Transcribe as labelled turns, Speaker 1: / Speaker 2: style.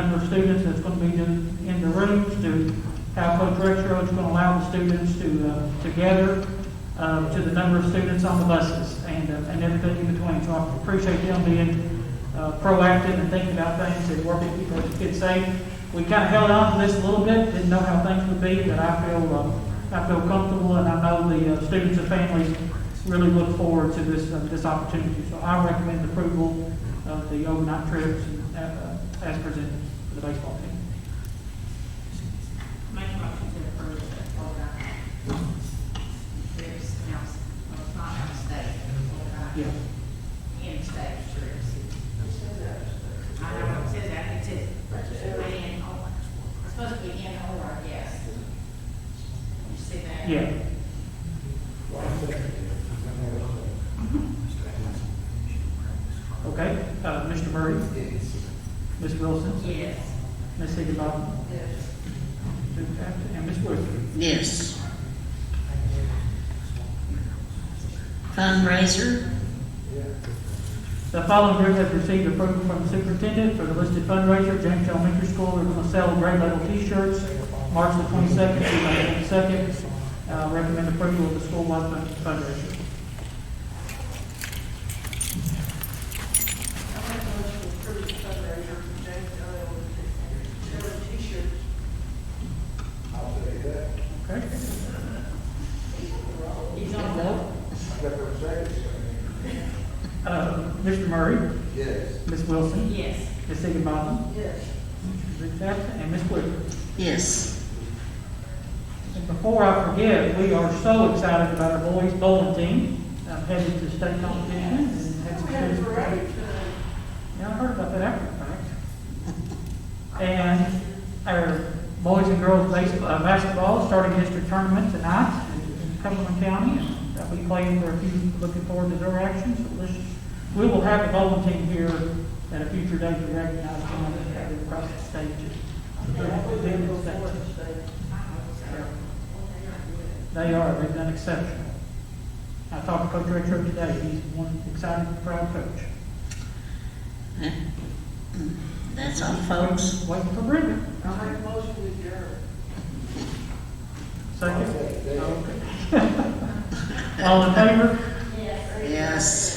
Speaker 1: number of students that's going to be in, in the rooms to how Coach Rexroad is going to allow the students to, uh, to gather, uh, to the number of students on the buses and, uh, and everything in between. So I appreciate them being, uh, proactive and thinking about things and working to keep those kids safe. We kind of held on to this a little bit, didn't know how things would be, but I feel, uh, I feel comfortable and I know the uh, students and families really look forward to this, uh, this opportunity. So I recommend approval of the overnight trips uh, uh, as presented for the baseball team.
Speaker 2: Make a motion to approve the Florida. Trips out, well, it's not out of state,
Speaker 1: Yeah.
Speaker 2: Florida, in-state trips. I don't know, it says that, it says, in or, it's supposed to be in or, yes. You see that?
Speaker 1: Yeah. Okay, uh, Mr. Murray, Ms. Wilson,
Speaker 2: Yes.
Speaker 1: Ms. Higgins-Balton,
Speaker 2: Yes.
Speaker 1: and Ms. Wood.
Speaker 3: Yes. Fundraiser,
Speaker 1: The following group has received approval from the superintendent for the listed fundraiser. James Elementary School, we're going to sell grade level T-shirts, March the twenty-second, through May twenty-second. Uh, recommend approval of the school-wide fund- fundraiser.
Speaker 4: I make a motion to approve the fundraiser for James L. L. T-shirts.
Speaker 1: Okay?
Speaker 2: He's on the,
Speaker 1: Uh, Mr. Murray,
Speaker 5: Yes.
Speaker 1: Ms. Wilson,
Speaker 2: yes.
Speaker 1: Ms. Higgins-Balton,
Speaker 4: Yes.
Speaker 1: Mr. Jackson, and Ms. Wood.
Speaker 3: yes.
Speaker 1: And before I forget, we are so excited about our boys bowling team, uh, headed to state competition. and had some
Speaker 4: We had a
Speaker 1: students-
Speaker 4: parade
Speaker 1: Yeah, I heard about that after the fact. And our boys and girls baseball, uh, basketball, starting district tournament tonight in Cumberland County. and I'll be playing for a few, looking forward to their action, so let's, we will have a bowling team here at a future date to recognize them and have them across the uh, stage.
Speaker 4: Yeah, we did go forward to state.
Speaker 1: They are, they've done exceptional. I talked to Coach Retro today, he's one excited, proud coach.
Speaker 3: Hmm. That's all, folks.
Speaker 1: Waiting for Brenda.
Speaker 4: I make a motion to adjourn.
Speaker 1: Second. Okay. All in favor?
Speaker 2: Yes.
Speaker 3: Yes.